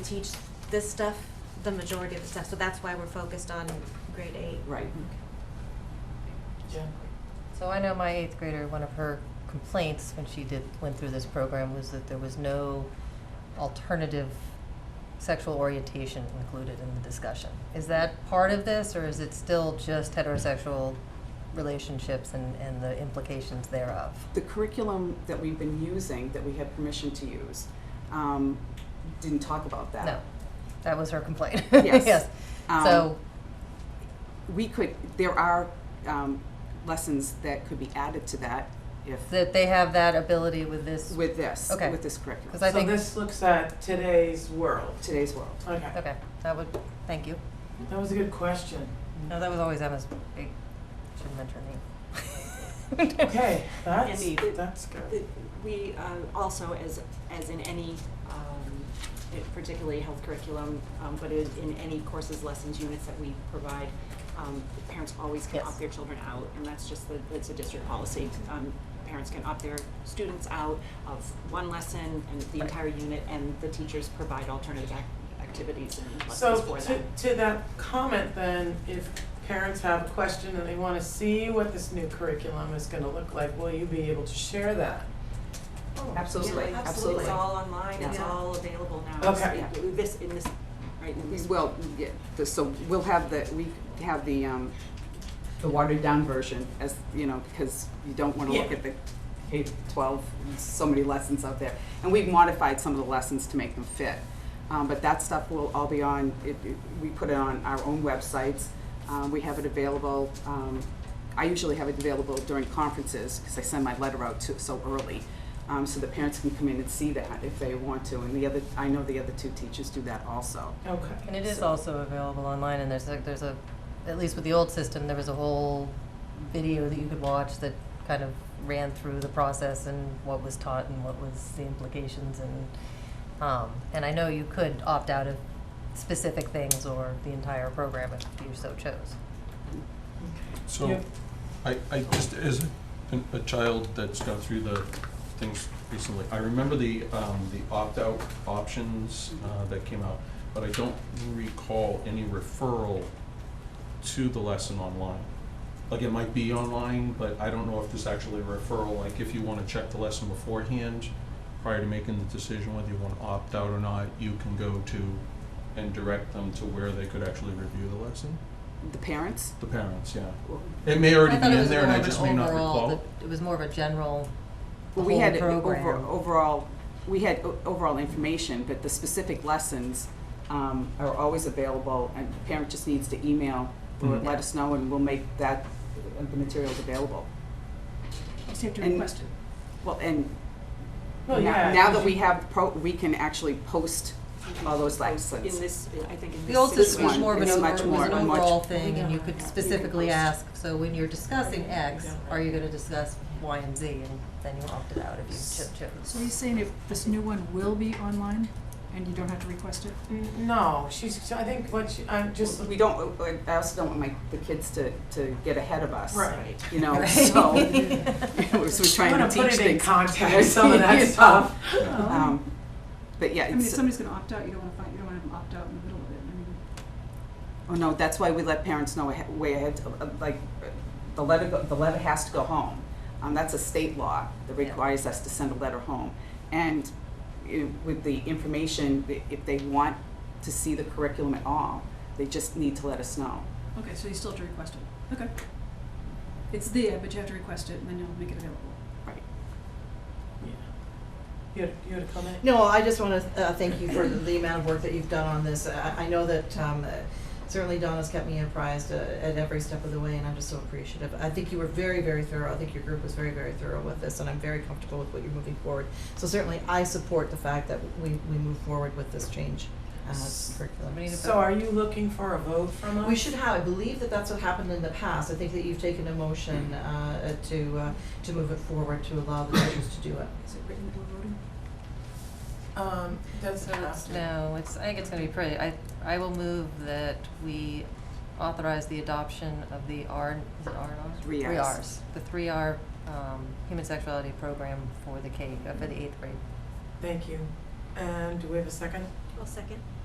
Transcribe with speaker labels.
Speaker 1: teach this stuff, the majority of the stuff, so that's why we're focused on grade eight.
Speaker 2: Right.
Speaker 3: So I know my eighth grader, one of her complaints when she did, went through this program was that there was no alternative sexual orientation included in the discussion. Is that part of this, or is it still just heterosexual relationships and, and the implications thereof?
Speaker 2: The curriculum that we've been using, that we have permission to use, um, didn't talk about that.
Speaker 3: No, that was her complaint.
Speaker 2: Yes. Um,
Speaker 3: So,
Speaker 2: We could, there are, um, lessons that could be added to that if,
Speaker 3: that they have that ability with this,
Speaker 2: with this,
Speaker 3: Okay.
Speaker 2: with this curriculum.
Speaker 3: because I think,
Speaker 4: So this looks at today's world.
Speaker 2: Today's world.
Speaker 4: Okay,
Speaker 3: okay, that would, thank you.
Speaker 4: that was a good question.
Speaker 3: No, that was always Emma's, I shouldn't mention her name.
Speaker 4: Okay, that's,
Speaker 5: Indeed.
Speaker 4: that's good.
Speaker 5: It- We uh, also, as, as in any, um, it- particularly health curriculum, um, but in in any courses, lessons, units that we provide, um, the parents always can
Speaker 3: Yes.
Speaker 5: opt their children out, and that's just, the it's a district policy. Um, Parents can opt their students out of one lesson and the
Speaker 3: Right.
Speaker 5: entire unit, and the teachers provide alternative ac- activities and lessons
Speaker 4: So
Speaker 5: for
Speaker 4: to,
Speaker 5: them.
Speaker 4: to that comment then, if parents have a question and they want to see what this new curriculum is going to look like, will you be able to share that?
Speaker 2: Absolutely,
Speaker 5: Yeah,
Speaker 2: absolutely.
Speaker 5: It's all online, it's
Speaker 2: Yeah.
Speaker 5: all available now. So,
Speaker 4: Okay.
Speaker 5: yeah, This, in this, right, in this.
Speaker 2: Well, yeah, the, so we'll have the, we have the, um, the watered down version as, you know, because you don't wanna look
Speaker 4: Yeah.
Speaker 2: at the K twelve, so many lessons out there. And we've modified some of the lessons to make them fit. Um, but that stuff will all be on, it, it- we put it on our own websites. Um, we have it available, um, I usually have it available during conferences, because I send my letter out to, so early. Um, so the parents can come in and see that if they want to, and the other, I know the other two teachers do that also.
Speaker 4: Okay.
Speaker 3: And it is also available online, and there's a, there's a, at least with the old system, there was a whole video that you could watch that kind of ran through the process and what was taught and what was the implications and, um, and I know you could opt out of specific things or the entire program if you so chose.
Speaker 4: Yeah.
Speaker 6: So, I, I just, as a, an- a child that's gone through the things recently, I remember the, um, the opt-out options, uh, that came out, but I don't recall any referral to the lesson online. Like, it might be online, but I don't know if there's actually a referral, like, if you wanna check the lesson beforehand, prior to making the decision whether you wanna opt out or not, you can go to and direct them to where they could actually review the lesson,
Speaker 2: The parents?
Speaker 6: the parents, yeah.
Speaker 2: Well,
Speaker 6: It may already
Speaker 3: I thought
Speaker 6: be
Speaker 3: it
Speaker 6: in
Speaker 3: was
Speaker 6: there and
Speaker 3: more
Speaker 6: I
Speaker 3: of an
Speaker 6: just may not
Speaker 3: overall-
Speaker 6: recall.
Speaker 3: that It was more of a general, the
Speaker 2: we
Speaker 3: whole
Speaker 2: had it over,
Speaker 3: program.
Speaker 2: overall, we had o- overall information, but the specific lessons um, are always available, and the parent just needs to email or
Speaker 3: Mm-hmm.
Speaker 6: Mhm.
Speaker 2: let us know, and we'll make that, uh, the materials available.
Speaker 7: Just have to
Speaker 2: And-
Speaker 7: request it.
Speaker 2: Well, and now,
Speaker 4: Well, yeah,
Speaker 2: now that
Speaker 4: you-
Speaker 2: we have pro, we can actually post all those
Speaker 5: In
Speaker 2: lessons.
Speaker 5: this, I think in this.
Speaker 3: The old system was
Speaker 2: one.
Speaker 3: more of an
Speaker 2: It's
Speaker 3: over,
Speaker 2: much
Speaker 3: it was an
Speaker 2: more- much-
Speaker 3: overall thing, and you could
Speaker 5: Yeah.
Speaker 3: specifically
Speaker 5: Yeah.
Speaker 3: ask, so when you're discussing X,
Speaker 4: Yeah.
Speaker 3: are you gonna discuss Y and Z, and then you opted out if you cho-
Speaker 7: So are you
Speaker 3: chose.
Speaker 7: saying if this new one will be online and you don't have to request it?
Speaker 4: N- No, she's, I think what she, I'm just,
Speaker 2: We don't, uh, I also don't want my, the kids to, to get ahead of us,
Speaker 4: right.
Speaker 2: you know,
Speaker 3: Right.
Speaker 2: so, so we're trying to teach things.
Speaker 4: I'm gonna put it in context, some of
Speaker 2: You
Speaker 4: that
Speaker 2: know,
Speaker 4: stuff.
Speaker 2: um, But yeah,
Speaker 7: I mean, if
Speaker 2: it's,
Speaker 7: somebody's gonna opt out, you don't wanna find, you don't wanna have them opt out in the middle of it, I mean.
Speaker 2: Oh, no, that's why we let parents know ahe- way ahead, uh, like, uh, the letter, go- the letter has to go home. Um, that's a state law that
Speaker 3: Yeah.
Speaker 2: requires us to send a letter home. And i- with the information, i- if they want to see the curriculum at all, they just need to let us know.
Speaker 7: Okay, so you still have to request it, okay. It's there, but you have to request it and then you'll make it available.
Speaker 2: Right.
Speaker 4: Yeah. You had, you had a comment?
Speaker 8: No, I just want to uh, thank you for the amount of work that you've done on this. I, I know that um, uh, certainly Donna's kept me apprised uh, at every step of the way, and I'm just so appreciative. I think you were very, very thorough. I think your group was very, very thorough with this, and I'm very comfortable with what you're moving forward. So certainly, I support the fact that we, we move forward with this change uh, curriculum.
Speaker 3: Somebody
Speaker 4: So are you looking for a vote from us?
Speaker 8: We should have, I believe that that's what happened in the past. I think that you've taken a motion uh, to, uh, to move it forward, to allow the teachers to do it.
Speaker 7: Is it written or voting?
Speaker 4: Um, doesn't
Speaker 3: So
Speaker 4: have
Speaker 3: it's,
Speaker 4: to.
Speaker 3: no, it's, I think it's gonna be pretty, I, I will move that we authorize the adoption of the R, is it R and R?
Speaker 2: Three
Speaker 3: Three
Speaker 2: Rs.
Speaker 3: Rs, the three R, um, human sexuality program for the K, uh, for the eighth grade.
Speaker 4: Thank you. And do we have a second?
Speaker 1: I'll second.